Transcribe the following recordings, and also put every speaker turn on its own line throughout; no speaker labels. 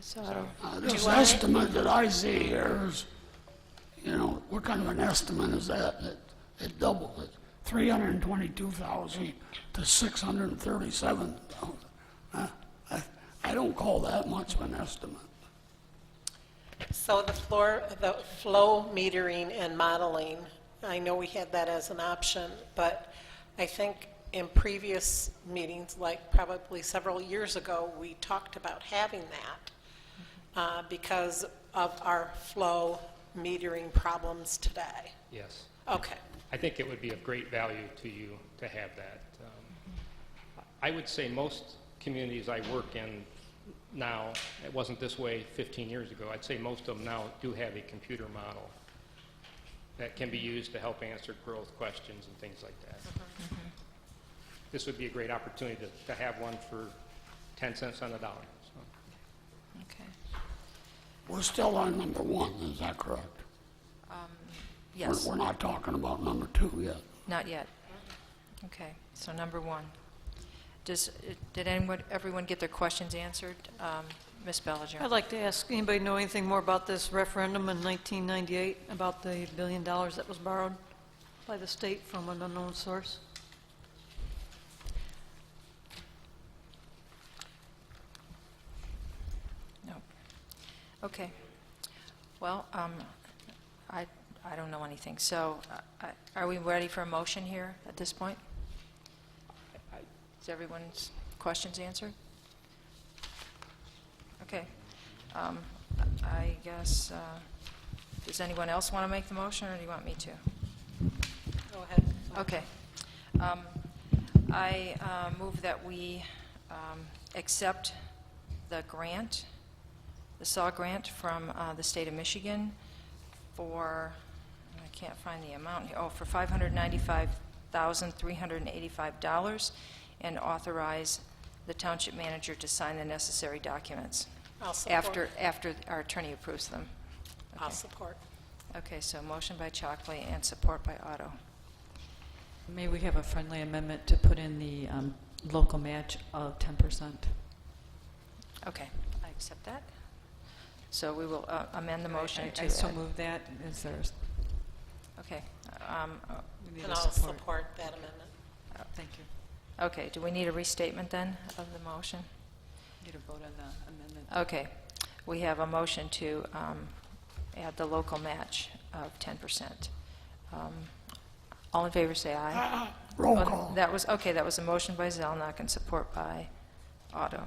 So,
Uh, This estimate that I see here is, you know, what kind of an estimate is that? It- It doubled it, 322,000 to 637,000. Uh, I I don't call that much of an estimate.
So the floor, the flow metering and modeling, I know we had that as an option, but I think in previous meetings, like probably several years ago, we talked about having that uh, because of our flow metering problems today.
Yes.
Okay.
I think it would be of great value to you to have that. Um, I would say most communities I work in now, it wasn't this way 15 years ago, I'd say most of them now do have a computer model that can be used to help answer growth questions and things like that. This would be a great opportunity to, to have one for 10 cents on the dollar. so.
okay.
We're still on number one, is that correct? We're-
Yes,
We're not talking about number two yet.
not yet. Okay, so number one. Does, did anyone, everyone get their questions answered? Um, Ms. Bellinger?
I'd like to ask, anybody know anything more about this referendum in 1998, about the billion dollars that was borrowed by the state from an unknown source?
No. Okay. Well, um, I, I don't know anything, so uh, I- are we ready for a motion here at this point? Is everyone's questions answered? Okay. Um, I guess, uh, does anyone else want to make the motion, or do you want me to?
Go ahead.
Okay. Um, I uh, move that we um, accept the grant, the SAW grant from uh, the state of Michigan for, I can't find the amount, here. oh, for $595,385, and authorize the township manager to sign the necessary documents.
I'll support.
After, after our attorney approves them.
I'll
Okay.
support.
Okay, so motion by Chockley and support by Otto.
May we have a friendly amendment to put in the um, local match of 10%?
Okay, I accept that. So we will uh, amend the motion to...
I so
add-
move that. Is there,
Okay. um, uh,
we need
And
a
I'll
support?
support that amendment.
Thank you.
Okay, do we need a restatement then of the motion?
Need a vote on the amendment.
Okay, we have a motion to um, add the local match of 10%. Um, All in favor, say aye.
Roll
Oh,
call.
That was, okay, that was a motion by Zelnok and support by Otto.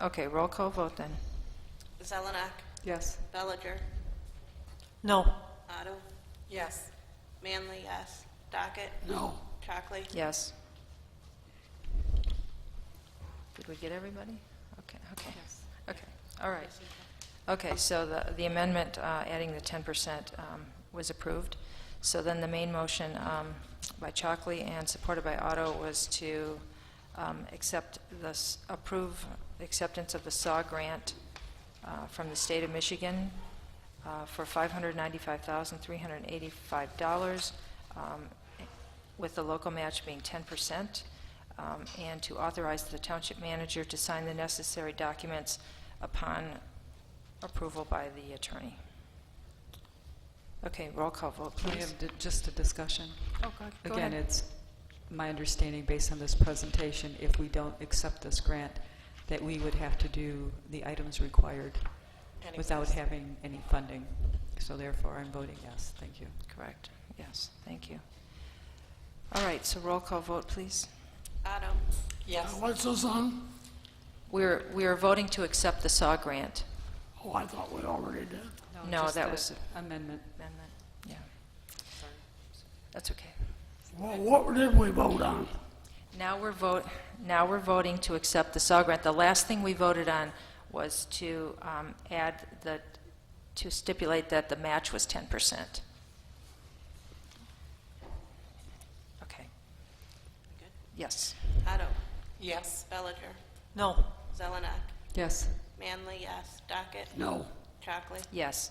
Okay, roll call vote then.
Zelenak,
Yes.
Bellinger,
No.
Otto,
Yes.
Manley, yes. Docket,
No.
Chockley,
Yes. Did we get everybody? Okay, okay. Okay, all right. Okay, so the the amendment uh, adding the 10% um, was approved. So then the main motion um, by Chockley and supported by Otto was to um, accept this, approve the acceptance of the SAW grant uh, from the state of Michigan uh, for $595,385, um, with the local match being 10%, um, and to authorize the township manager to sign the necessary documents upon approval by the attorney. Okay, roll call vote,
We
please.
have di- just a discussion.
Oh, go- go
Again,
ahead.
it's my understanding, based on this presentation, if we don't accept this grant, that we would have to do the items required without
Anyways.
having any funding. So therefore, I'm voting yes. Thank you.
Correct, yes, thank you. All right, so roll call vote, please.
Otto,
Yes.
What's this on?
We're, we are voting to accept the SAW grant
Oh, I thought we already did.
No,
just
that
the
was-
Amendment.
amendment, yeah. That's okay.
Well, what did we vote on?
Now we're vote, now we're voting to accept the SAW grant. The last thing we voted on was to um, add the, to stipulate that the match was 10%. Okay. Yes.
Otto,
Yes.
Bellinger,
No.
Zelenak,
Yes.
Manley, yes. Docket,
No.
Chockley,
Yes.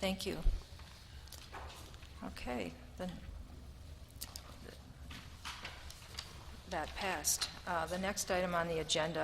Thank you. Okay, then, that passed. Uh, The next item on the agenda